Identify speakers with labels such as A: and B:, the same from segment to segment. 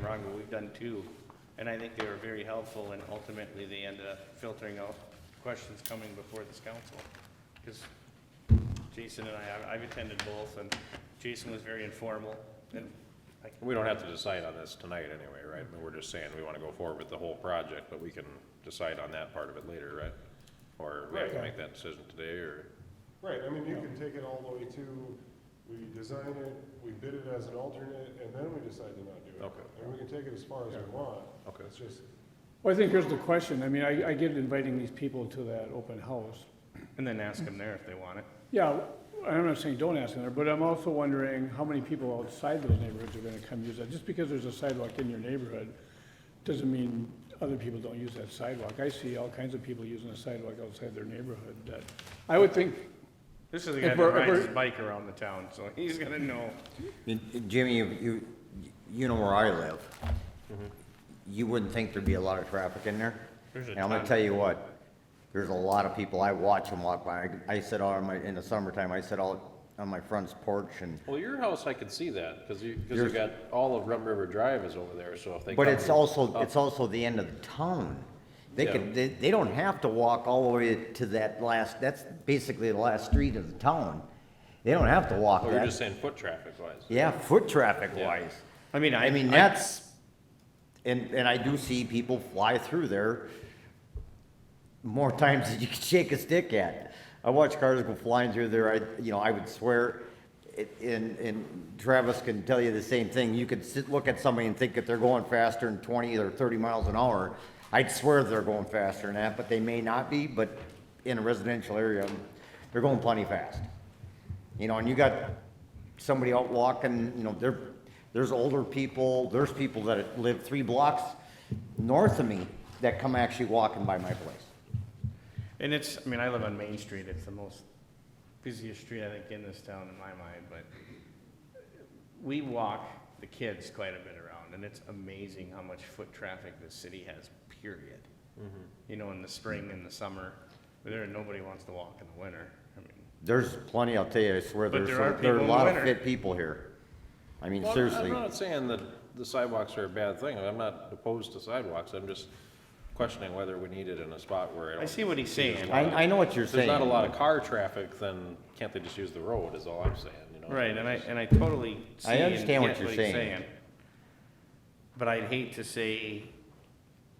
A: wrong, and we've done two. And I think they were very helpful, and ultimately, they ended up filtering out questions coming before this council. Because Jason and I, I've attended both, and Jason was very informal, and I
B: We don't have to decide on this tonight anyway, right? I mean, We're just saying we want to go forward with the whole project, but we can decide on that part of it later, right? Or we have to
C: Right.
B: make that decision today, or,
C: Right, I mean, you can take it all the way to, we design it, we bid it as an alternate, and then we decide to not do it.
B: Okay.
C: And we can take it as far as we want.
B: Okay.
C: It's just,
D: Well, I think here's the question. I mean, I, I get inviting these people to that open house.
A: And then ask them there if they want it.
D: Yeah, I'm not saying don't ask them there, but I'm also wondering how many people outside those neighborhoods are gonna come use that. Just because there's a sidewalk in your neighborhood, doesn't mean other people don't use that sidewalk. I see all kinds of people using the sidewalk outside their neighborhood that, I would think,
A: This is the guy
D: If
A: that
D: we're- if
A: rides
D: we're-
A: his bike around the town, so he's gonna know.
E: And- and Jimmy, you, you, you know where I live.
B: Mm-hmm.
E: You wouldn't think there'd be a lot of traffic in there.
A: There's a
E: And I'm gonna
A: ton.
E: tell you what, there's a lot of people, I watch them walk by. I I sit out on my, in the summertime, I sit out on my front's porch and,
B: well, your house, I could see that, because you, because you
E: Yours-
B: got, all of Rum River Drive is over there, so if they.
E: but
B: come-
E: it's also, it's also the end of the town. They
B: Yeah.
E: could, they, they don't have to walk all the way to that last, that's basically the last street of the town. They don't have to walk
B: Oh, you're just
E: that.
B: saying foot traffic wise.
E: Yeah, foot traffic wise.
A: I mean,
E: I mean, that's, and, and I do see people fly through there more times than you can shake a stick at. I watch cars go flying through there, I, you know, I would swear, it- and, and Travis can tell you the same thing, you could sit, look at somebody and think that they're going faster than twenty or thirty miles an hour. I'd swear they're going faster than that, but they may not be, but in a residential area, they're going plenty fast. You know, and you got somebody out walking, you know, there, there's older people, there's people that live three blocks north of me that come actually walking by my place.
A: And it's, I mean, I live on Main Street, it's the most busiest street, I think, in this town in my mind, but we walk the kids quite a bit around, and it's amazing how much foot traffic this city has, period. You know, in the spring and the summer, there, nobody wants to walk in the winter, I mean,
E: There's plenty, I'll tell you, I swear,
A: But
E: there's,
A: there are
E: some- there
A: people
E: are a
A: in the
E: lot of
A: winter.
E: fit people here. I mean,
B: Well,
E: seriously.
B: I'm not saying that the sidewalks are a bad thing, I'm not opposed to sidewalks, I'm just questioning whether we need it in a spot where I
A: I
B: don't
A: see what he's saying.
E: I, I know what you're
B: If there's
E: saying.
B: not a lot of car traffic, then can't they just use the road, is all I'm saying, you know?
A: Right, and I, and I totally see
E: I
A: and get
E: understand what
A: what
E: you're
A: he's
E: saying.
A: saying. But I'd hate to say,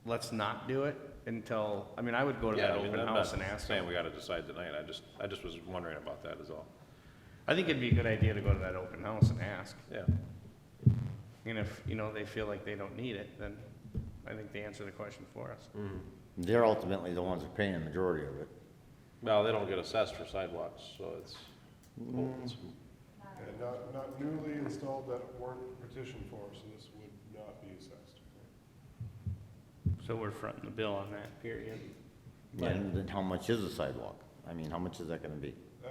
A: let's not do it until, I mean, I would go to
B: Yeah,
A: that
B: I mean,
A: open
B: I'm
A: house and
B: not
A: ask
B: saying
A: them.
B: we gotta decide tonight, I just, I just was wondering about that is all,
A: I think it'd be a good idea to go to that open house and ask.
B: yeah.
A: And if, you know, they feel like they don't need it, then I think they answer the question for us.
E: They're ultimately the ones that are paying the majority of it.
B: Well, they don't get assessed for sidewalks, so it's, it's-
C: and not, not newly installed that weren't petitioned for, so this would not be assessed.
A: So we're fronting the bill on that, period.
E: And then how much is a sidewalk? I mean, how much is that gonna be?
C: Uh,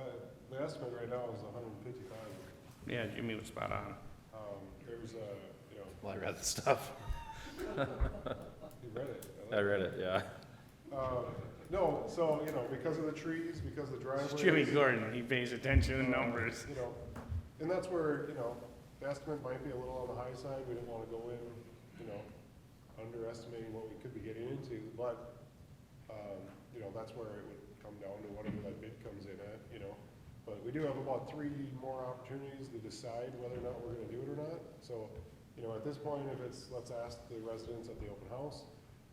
C: the estimate right now is hundred and fifty thousand.
A: Yeah, Jimmy was spot on.
C: Um, there's a, you know,
B: well, I read the stuff,
C: you read it. I
B: I
C: like-
B: read it, yeah.
C: Um, no, so, you know, because of the trees, because of the driveways.
A: Jimmy Gordon, he pays attention to numbers.
C: you know, and that's where, you know, the estimate might be a little on the high side, we do not wanna go in, you know, underestimating what we could be getting into, but, um, you know, that's where it would come down to whatever that bid comes in at, you know. But we do have about three more opportunities to decide whether or not we're gonna do it or not, so, you know, at this point, if it's, let's ask the residents at the open house,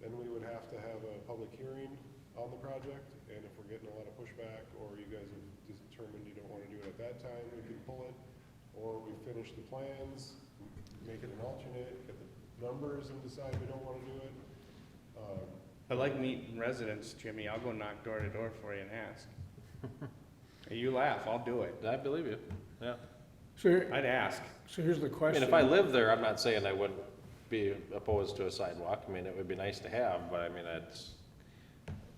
C: then we would have to have a public hearing on the project, and if we're getting a lot of pushback, or you guys have determined you don't wanna do it at that time, we can pull it, or we finish the plans, make it an alternate, get the numbers and decide we don't wanna do it. Um,
A: I like meeting residents, Jimmy. I'll go knock door to door for you and ask. You laugh, I'll do it.
B: I believe you, yeah.
D: so, here-
A: I'd ask.
D: so here's the
B: I mean,
D: question.
B: if I lived there, I'm not saying I wouldn't be opposed to a sidewalk, I mean, it would be nice to have, but I mean, it's,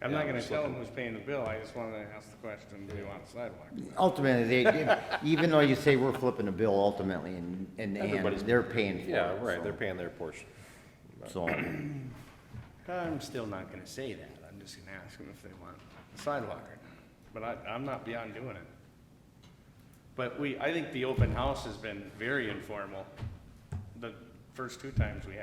A: I'm not
B: Yeah, I'm
A: gonna
B: just
A: tell them
B: looking.
A: who's paying the bill. I just wanted to ask the question, do you want a sidewalk?
E: Ultimately, they, even though you say we're flipping the bill ultimately, and, and, and
B: Everybody's-
E: they're paying for it.
B: yeah, right, they're
E: so-
B: paying their portion.
E: So.
A: I'm still not gonna say that. I'm just gonna ask them if they want a sidewalk or not. But I, I'm not beyond doing it. But we, I think the open house has been very informal. The first two times we had.